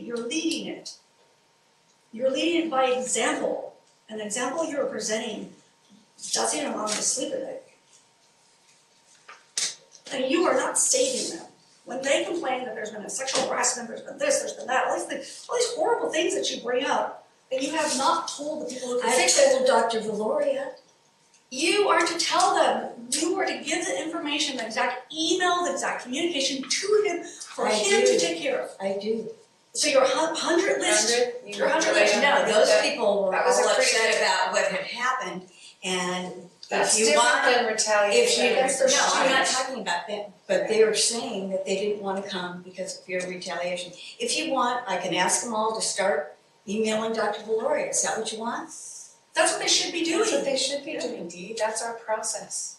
you're leading it. You're leading it by example, an example you're presenting doesn't allow them to sleep at night. And you are not saving them. When they complain that there's been a sexual harassment, there's been this, there's been that, all these things, all these horrible things that you bring up, and you have not told the people who can I fix it. told Dr. Valoria, You are to tell them, you are to give the information, the exact email, the exact communication to him for I him do. to take care of. I do. So your hun- hundred list, your hundred list, no, No, those those, people were that was a all pretty upset good- about what had happened and if That's you different want, than if retaliation. you, no, I'm not Right. talking about that, but they were saying that they didn't wanna come because of fear of retaliation. If you want, I can ask them all to start emailing Dr. Valoria, is that what you want? that's what they should be doing. That's what they should be doing, Dee, that's our process.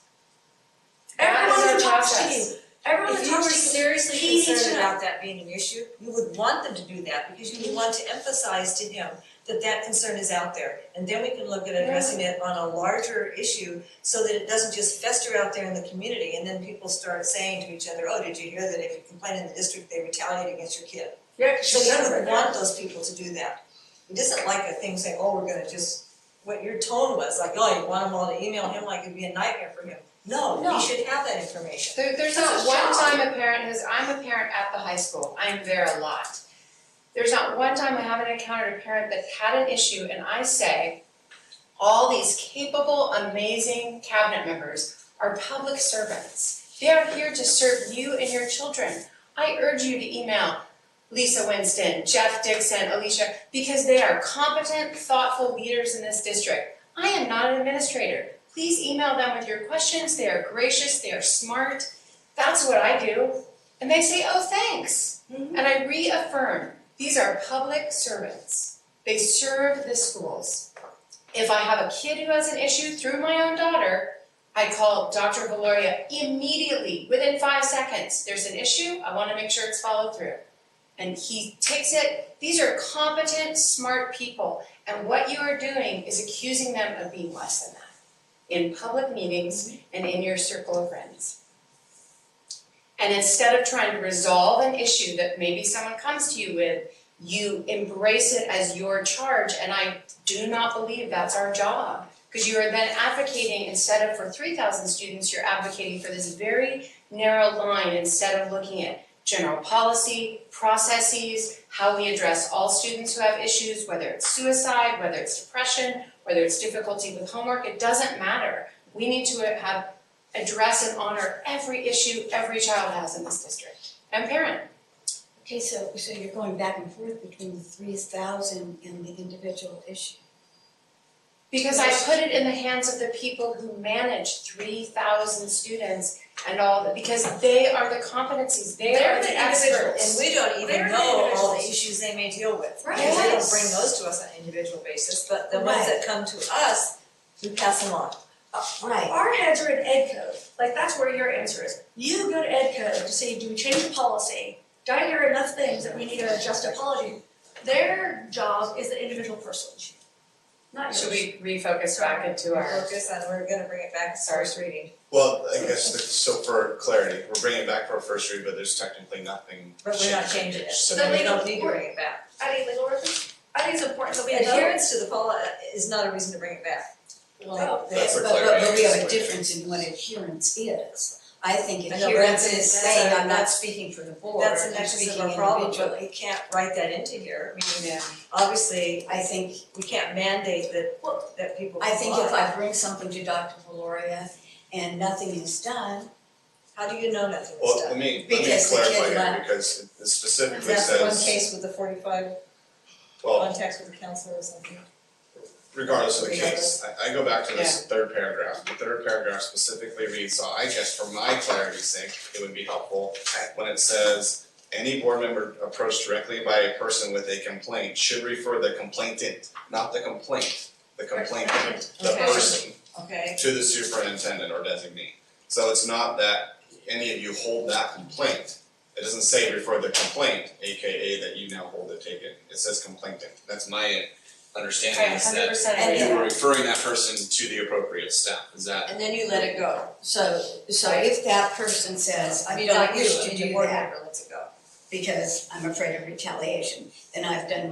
Everyone That who is our talks to you, process. everyone If who you were talks to you, he seriously needs to concerned know. about that being an issue, you would want them to do that because you would want to emphasize to him that that concern is out there. And then we can look at addressing it on a larger issue so that it doesn't just fester out there in the community. And then people start saying to each other, oh, did you hear that if you complain in the district, they retaliate against your kid? Yeah, So you would want those people to do that. It isn't like a thing saying, oh, we're gonna just, what your tone was, like, oh, you want them all to email him like it'd be a nightmare for him. No, No. he should have that information. There, there's That's not his one job. time a parent has, I'm a parent at the high school, I'm there a lot. There's not one time I haven't encountered a parent that had an issue and I say, all these capable, amazing cabinet members are public servants. They are here to serve you and your children. I urge you to email Lisa Winston, Jeff Dixon, Alicia, because they are competent, thoughtful leaders in this district. I am not an administrator. Please email them with your questions. They are gracious, they are smart. That's what I do. And they say, oh, thanks. Mhm. And I reaffirm, these are public servants. They serve the schools. If I have a kid who has an issue through my own daughter, I call Dr. Valoria immediately, within five seconds. There's an issue, I want to make sure it's followed through and he takes it. These are competent, smart people, and what you are doing is accusing them of being less than that in public meetings and in your circle of friends. And instead of trying to resolve an issue that maybe someone comes to you with, you embrace it as your charge, and I do not believe that's our job. Because you are then advocating, instead of for three thousand students, you're advocating for this very narrow line instead of looking at general policy, processes, how we address all students who have issues, whether it's suicide, whether it's depression, whether it's difficulty with homework, it doesn't matter. We need to have, address and honor every issue every child has in this district and parent. Okay, so, so you're going back and forth between the three thousand and the individual issue. Because I put it in the hands of the people who manage three thousand students and all, that because they are the competencies, they are They're the the individuals, experts. and we don't They're even the know all the individuals. issues they may deal with. Right. Because they Yes. don't bring those to us on an individual basis, but the ones that come to us, we pass them on. Right, Our heads are in ed code, like that's where your answer is. You go to ed code to say, do we change the policy? Did I hear enough things that we need to adjust a policy? Their job is the individual person, not Should yours. we refocus back into We our? focus on, we're gonna bring it back to first reading. Well, I guess, the- so for clarity, we're bringing it back for a first read, but there's technically nothing But we're not changing it, so we don't need to bring it back. I think legal reference, I think it's important that we know. Adherence to the poli is not a reason to bring it back. well, but, That's a but, but but we have a clarification. difference in what adherence is. I think I know, but adherence that's- is that's saying, a- I'm not that's- speaking for the board, I'm That's speaking an individually. excess of a problem, but we can't write that into here. I mean, Yeah. obviously, I think, we can't mandate that, that people I think if comply. I bring something to Dr. Valoria and nothing is done, How do you know nothing Well, was done? let me, let me Because the kid clarify here, left. because it specifically That's the one says, case with the forty-five well, contacts with the counselor or something. regardless of the Regardless. case, I, I go back to this third paragraph. The third paragraph specifically reads, so I guess for my clarity's sake, it would be helpful when it says, any board member approached directly by a person with a complaint should refer the complainant, not the complaint, the complainant, the Okay. person. Okay, to the superintendent or designee. So it's not that any of you hold that complaint. It doesn't say refer the complaint, AKA that you now hold it, take it. It says complainant. That's my understanding is hundred that percent. And you were referring that person to the appropriate staff. Is that, and then you let it go. so, so if that person says, I I mean, don't not you, wish to the do board that, member lets it go. because I'm afraid of retaliation, then I've done